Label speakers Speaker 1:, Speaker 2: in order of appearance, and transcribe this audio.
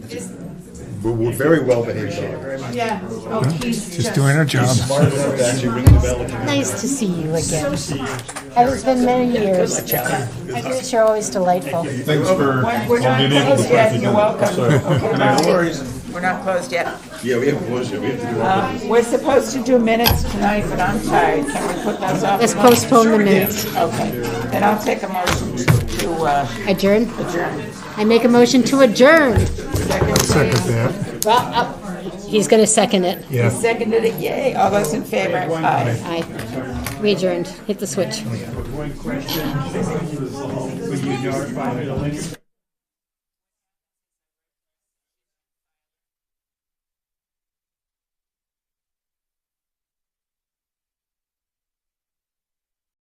Speaker 1: Is,
Speaker 2: We're, we're very well behaved. dogs.
Speaker 1: yeah. Oh, he's just,
Speaker 3: Just doing her job.
Speaker 2: Smart enough to actually ring the bell. and-
Speaker 4: Nice to see you again. It's been many years. I guess you're always delightful.
Speaker 5: Thanks for
Speaker 6: We're not
Speaker 5: being able to
Speaker 6: closed yet,
Speaker 5: practice.
Speaker 6: you're welcome.
Speaker 2: No worries.
Speaker 6: We're not closed yet.
Speaker 2: Yeah, we have to close it. We have to do it.
Speaker 6: We're supposed to do minutes tonight, but I'm tired. Can we put those off?
Speaker 4: Let's postpone the minutes.
Speaker 6: Okay, then I'll take a motion to uh,
Speaker 4: Adjourn?
Speaker 6: adjourn.
Speaker 4: I make a motion to adjourn.
Speaker 3: Second that.
Speaker 4: Well, uh, he's gonna second it.
Speaker 3: Yeah.
Speaker 6: Seconded it, yay. All those in favor? Aye.
Speaker 4: Aye. We adjourned. Hit the switch.
Speaker 7: One question, would you notify the